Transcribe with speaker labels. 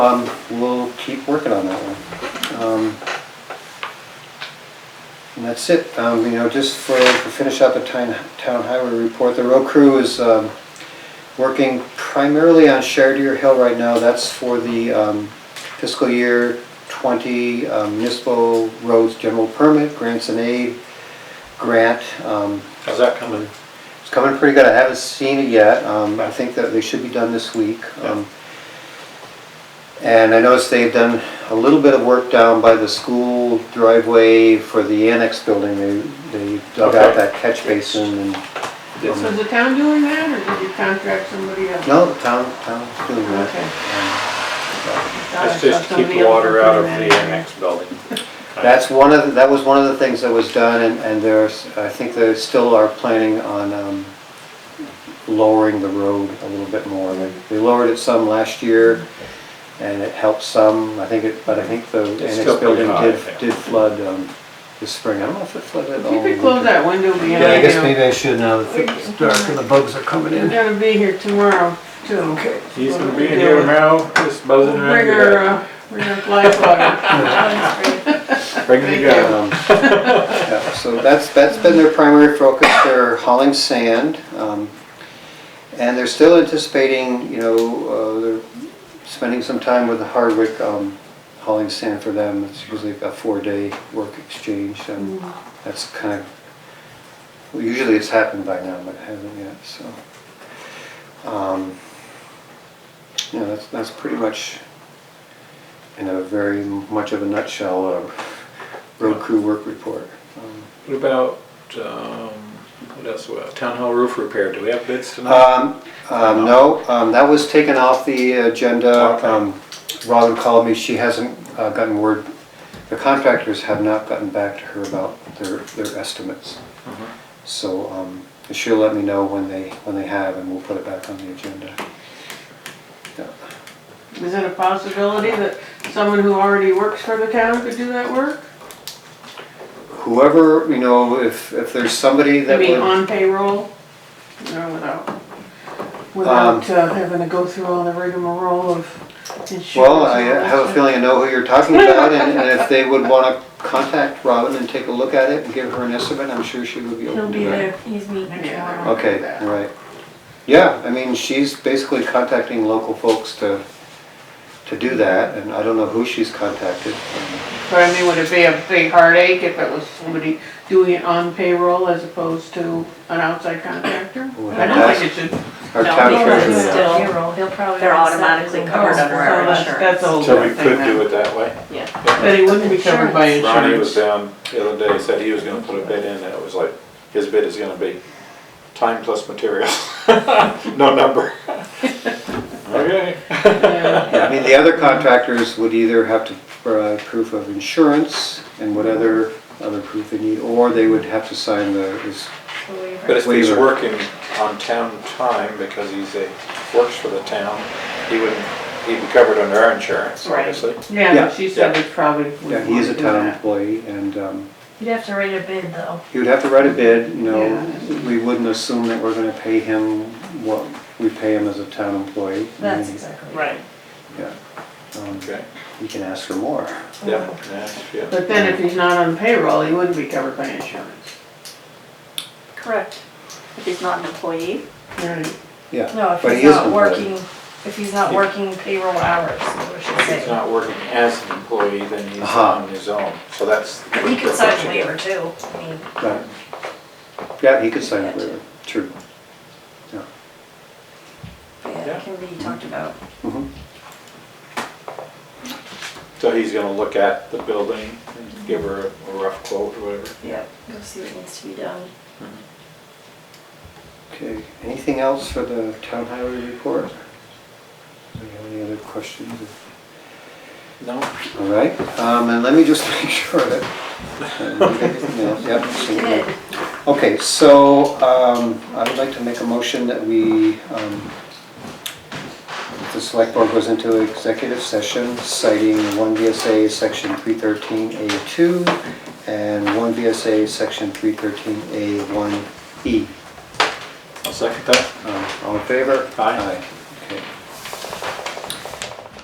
Speaker 1: Um, we'll keep working on that one. Um, And that's it, um, you know, just for, to finish up a town, town highway report, the road crew is, um, working primarily on Shardier Hill right now, that's for the, um, fiscal year twenty um, municipal roads general permit, grants and aid, grant, um,
Speaker 2: How's that coming?
Speaker 1: it's coming pretty good, I haven't seen it yet, um, I think that they should be done this week. Um, And I noticed they've done a little bit of work down by the school driveway for the annex building, they, they dug out
Speaker 2: Okay.
Speaker 1: that catch basin and,
Speaker 2: Yes.
Speaker 3: So is the town doing that, or did you contract somebody else?
Speaker 1: no, the town, town's doing
Speaker 3: Okay.
Speaker 1: that.
Speaker 3: Thought I
Speaker 2: It's
Speaker 3: saw
Speaker 2: just to keep
Speaker 3: somebody
Speaker 2: the
Speaker 3: else
Speaker 2: water out of
Speaker 3: doing
Speaker 2: the
Speaker 3: that.
Speaker 2: annex building.
Speaker 1: That's one of, the- that was one of the things that was done, and, and there's, I think they still are planning on, um, lowering the road a little bit more. They they lowered it some last year, and it helped some, I think it, but I think the
Speaker 2: It's
Speaker 1: annex
Speaker 2: still pretty
Speaker 1: building
Speaker 2: high, I
Speaker 1: did,
Speaker 2: think.
Speaker 1: did flood, um, this spring, I don't know if it flooded at
Speaker 3: If
Speaker 1: all.
Speaker 3: you
Speaker 1: in
Speaker 3: could
Speaker 1: the
Speaker 3: close
Speaker 1: winter.
Speaker 3: that window behind you.
Speaker 1: Yeah, I guess maybe I should now, that it's dark and the bugs are coming
Speaker 3: We're
Speaker 1: in.
Speaker 3: gonna be here tomorrow, too. Okay.
Speaker 2: He's gonna be here now, just buzzing around.
Speaker 3: Bring her,
Speaker 2: your-
Speaker 3: uh, bring her fly flyer.
Speaker 2: Bring the gun.
Speaker 1: Um, yeah, So that's, that's been their primary focus, they're hauling sand. um, And they're still anticipating, you know, uh, they're spending some time with Hardwick um, hauling sand for them. It's usually a four-day work exchange, and that's kind of, well, usually it's happened by now, but it hasn't yet, so. um, Yeah, that's, that's pretty much, in a very much of a nutshell, uh, a road crew work report. Um,
Speaker 2: What about, um, what else, Well, town hall roof repair, do we have bids tonight?
Speaker 1: Um, um, no, um, that was taken off the agenda.
Speaker 2: Okay.
Speaker 1: Um, Robin called me, she hasn't uh, gotten word, the contractors have not gotten back to her about their, their estimates.
Speaker 2: Mhm.
Speaker 1: So, um, she'll let me know when they, when they have and we'll put it back on the agenda. Yeah.
Speaker 3: Is it a possibility that someone who already works for the town could do that work?
Speaker 1: Whoever, you know, if, if there's somebody
Speaker 3: I
Speaker 1: that
Speaker 3: mean,
Speaker 1: would,
Speaker 3: on payroll, or without, without
Speaker 1: Um,
Speaker 3: uh, having to go through all the rigmarole of insurance.
Speaker 1: well, I uh,
Speaker 3: and all that
Speaker 1: have a
Speaker 3: stuff.
Speaker 1: feeling I know who you're talking about and, and if they would wanna contact Robin and take a look at it and give her an estimate, I'm sure she would be
Speaker 3: He'll
Speaker 1: open to
Speaker 3: be
Speaker 1: that.
Speaker 3: there.
Speaker 4: He's me next
Speaker 3: Yeah.
Speaker 4: tomorrow.
Speaker 1: Okay, all right. Yeah, I mean, she's basically contacting local folks to, to do that, and I don't know who she's contacted.
Speaker 3: But I mean, would it be a big heartache if it was somebody doing it on payroll as opposed to an outside contractor?
Speaker 1: Well,
Speaker 3: I don't think it should.
Speaker 1: Our
Speaker 5: No,
Speaker 1: town
Speaker 5: we don't
Speaker 1: treasurer.
Speaker 5: do Still,
Speaker 4: He'll probably.
Speaker 5: they're automatically covered under our
Speaker 3: That's, that's a
Speaker 5: insurance.
Speaker 3: whole
Speaker 2: So we
Speaker 3: different thing
Speaker 2: could do
Speaker 3: now.
Speaker 2: it that way?
Speaker 5: Yeah,
Speaker 3: But he wouldn't be covered by
Speaker 2: Ronnie was
Speaker 3: insurance.
Speaker 2: down the other day, said he was gonna put a bid in, and it was like, his bid is gonna be time plus material, no number. Okay.
Speaker 3: Yeah.
Speaker 1: Yeah, I mean, the other contractors would either have to provide proof of insurance and what other, other proof they need, or they would have to sign the, this-
Speaker 2: But if he's
Speaker 1: Waiver.
Speaker 2: working on town time because he's a, works for the town, he wouldn't, he'd be covered under our insurance,
Speaker 3: Right.
Speaker 2: obviously.
Speaker 3: Yeah,
Speaker 1: Yeah.
Speaker 3: but she said it probably wouldn't
Speaker 1: yeah, he is a
Speaker 3: wanna do
Speaker 1: town
Speaker 3: that.
Speaker 1: employee, and, um,
Speaker 4: You'd have to write a bid though.
Speaker 1: he would have to write a bid, you know,
Speaker 3: Yeah.
Speaker 1: we wouldn't assume that we're gonna pay him what we pay him as a town employee. I
Speaker 4: That's
Speaker 1: mean,
Speaker 4: exactly.
Speaker 3: Right,
Speaker 1: Yeah. Um,
Speaker 2: Okay,
Speaker 1: You can ask for more.
Speaker 2: yeah, yeah, yeah.
Speaker 3: but then if he's not on payroll, he wouldn't be covered by insurance.
Speaker 5: correct. If he's not an employee,
Speaker 3: Right.
Speaker 1: Yeah.
Speaker 4: No, if
Speaker 1: but
Speaker 4: he's
Speaker 1: he is
Speaker 4: not
Speaker 1: employed.
Speaker 4: working, if he's not working payroll hours, is what I should
Speaker 2: If he's
Speaker 4: say.
Speaker 2: not working as an employee, then he's
Speaker 1: Uh-huh.
Speaker 2: on his own, so that's.
Speaker 4: But he could sign a waiver too. I mean,
Speaker 1: Right. Yeah, he could sign a waiver, true.
Speaker 4: yeah, it can be talked about.
Speaker 1: Mhm.
Speaker 2: So he's gonna look at the building and give her a rough quote or whatever.
Speaker 4: Yeah, go see what needs to be done.
Speaker 1: Okay, anything else for the town highway report? Do you have any other questions?
Speaker 2: No?
Speaker 1: All right, um, and let me just make sure that. uh, Yep, so-
Speaker 4: Good.
Speaker 1: Okay, so um, I would like to make a motion that we, um, the select board goes into executive session citing 1 VSA Section 313A2 and 1 VSA Section 313A1E.
Speaker 2: I'll second that.
Speaker 1: E. Um, All in favor?
Speaker 2: Aye.